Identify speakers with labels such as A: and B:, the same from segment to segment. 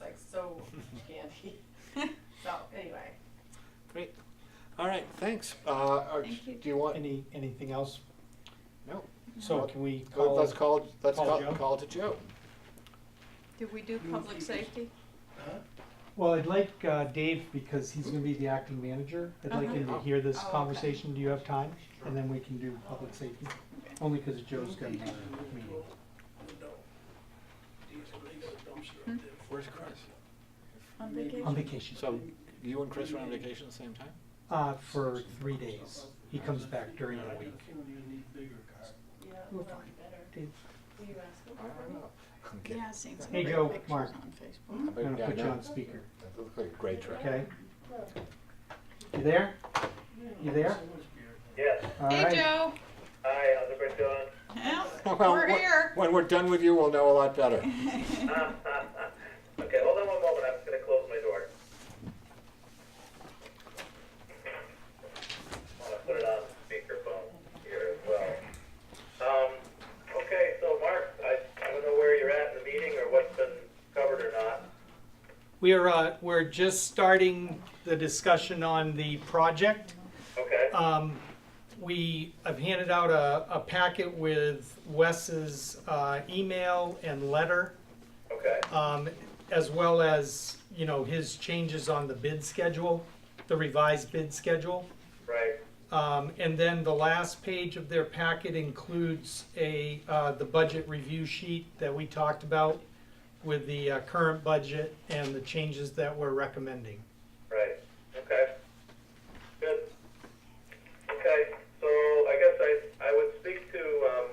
A: money. So, anyway,
B: Great. All right, thanks. Uh, or
C: Thank you.
B: do you want,
D: Any, anything else?
B: no,
D: So can we
B: Go-
D: call,
B: let's call, let's
D: call
B: call,
D: Joe?
B: call to Joe.
C: Did we do public safety?
D: well, I'd like uh, Dave, because he's gonna be the acting manager, I'd like him to
B: Uh-huh.
D: hear this
C: Oh, okay.
D: conversation. Do you have time? And then we can do public safety, only because Joe's gonna be meeting.
B: Where's Chris?
C: On
D: on
C: vacation?
D: vacation,
B: So you and Chris were on vacation at the same time?
D: uh, for three days. He comes back during the week.
A: yeah,
D: We're
A: that'd
D: fine.
A: be better.
D: Dave,
A: Will you ask him?
B: I don't know. I'm kidding.
C: Yeah, seems.
D: Hey, Joe, Mark.
C: On Facebook.
B: I bet- yeah,
D: I'm gonna
B: I
D: put you
B: know.
D: on speaker,
B: That looks like a great trip.
D: okay? You there? You there?
E: Yes.
D: All
C: Hey,
D: right.
C: Joe.
E: Hi, how's everybody doing?
C: Yeah,
B: Well,
C: we're
B: when-
C: here.
B: When we're done with you, we'll know a lot better.
E: okay, hold on one moment. I'm just going to close my door. I'm going to put it on speakerphone here as well. Um, okay, so Mark, I, I don't know where you're at in the meeting or what's been covered or not.
D: We're, uh, we're just starting the discussion on the project.
E: Okay.
D: Um, we, I've handed out a, a packet with Wes's, uh, email and letter,
E: Okay.
D: um, as well as, you know, his changes on the bid schedule, the revised bid schedule.
E: Right.
D: Um, and then the last page of their packet includes a, uh, the budget review sheet that we talked about with the, uh, current budget and the changes that we're recommending.
E: Right, okay. Good. Okay, so I guess I, I would speak to, um,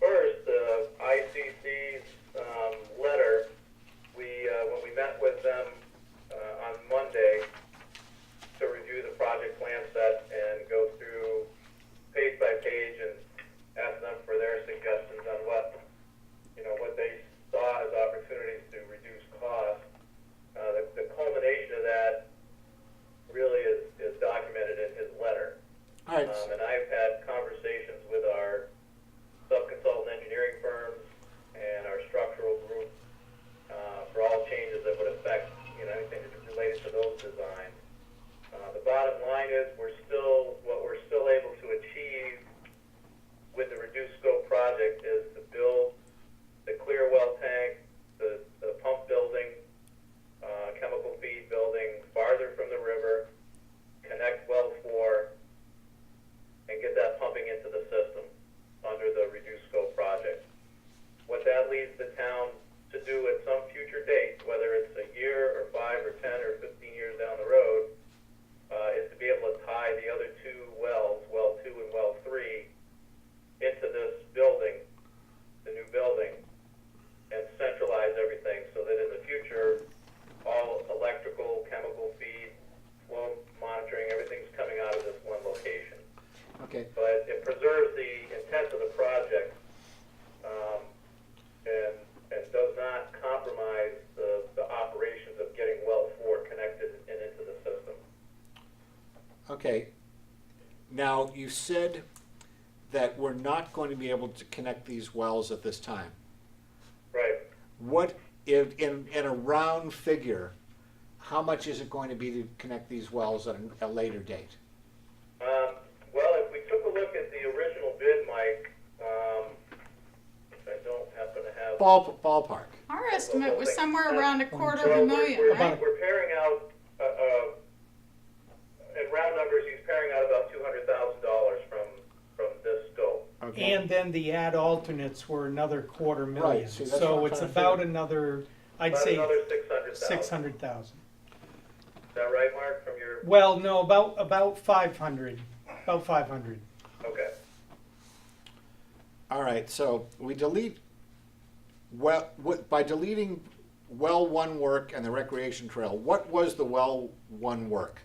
E: first, the ICC's, um, letter. We, uh, when we met with them, uh, on Monday to review the project plan set and go through page by page and ask them for their suggestions on what, you know, what they saw as opportunities to reduce costs. Uh, the, the culmination of that really is, is documented in his letter.
B: All right,
E: Um, and I've had conversations with our sub-consultant engineering firms and our structural group uh, for all changes that would affect, you know, anything that's related to those designs. Uh, the bottom line is we're still, what we're still able to achieve with the reduced scope project is to build the clear well tank, the, the pump building, uh, chemical feed building farther from the river, connect well four, and get that pumping into the system under the reduced scope project. What that leads the town to do at some future date, whether it's a year or five or ten or fifteen years down the road, uh, is to be able to tie the other two wells, well two and well three, into this building, the new building, and centralize everything so that in the future, all electrical, chemical feed, flow monitoring, everything's coming out of this one location
B: okay.
E: but it preserves the intent of the project, um, and, and does not compromise the, the operations of getting well four connected and into the system.
B: Okay. Now, you said that we're not going to be able to connect these wells at this time.
E: Right.
B: What, in, in, in a round figure, how much is it going to be to connect these wells at a, a later date?
E: Um, well, if we took a look at the original bid, Mike, um, I don't happen to have.
B: Ball, ballpark.
C: Our estimate was somewhere around a quarter of a
E: Well, we're-
C: million,
E: we're-
C: right?
E: We're pairing out, uh, uh, in round numbers, he's pairing out about two hundred thousand dollars from, from this scope.
B: Okay.
D: And then the ad alternates were another quarter million,
B: Right, see, that's what
D: so
B: I'm
D: it's
B: trying to
D: about
B: figure.
D: another, I'd
E: About
D: say
E: another six hundred thousand.
D: six hundred thousand.
E: Is that right, Mark, from your,
D: Well, no, about, about five hundred, about five hundred.
E: okay,
B: All right, so we delete, well, what, by deleting well one work and the recreation trail, what was the well one work?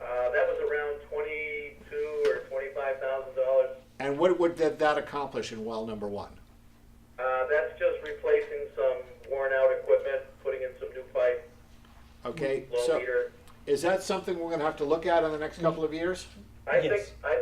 E: uh, that was around twenty-two or twenty-five thousand dollars.
B: And what would that, that accomplish in well number one?
E: Uh, that's just replacing some worn-out equipment, putting in some new pipe,
B: Okay,
E: low
B: so
E: meter.
B: is that something we're gonna have to look at in the next couple of years?
E: I think, um,
D: Yes.
E: I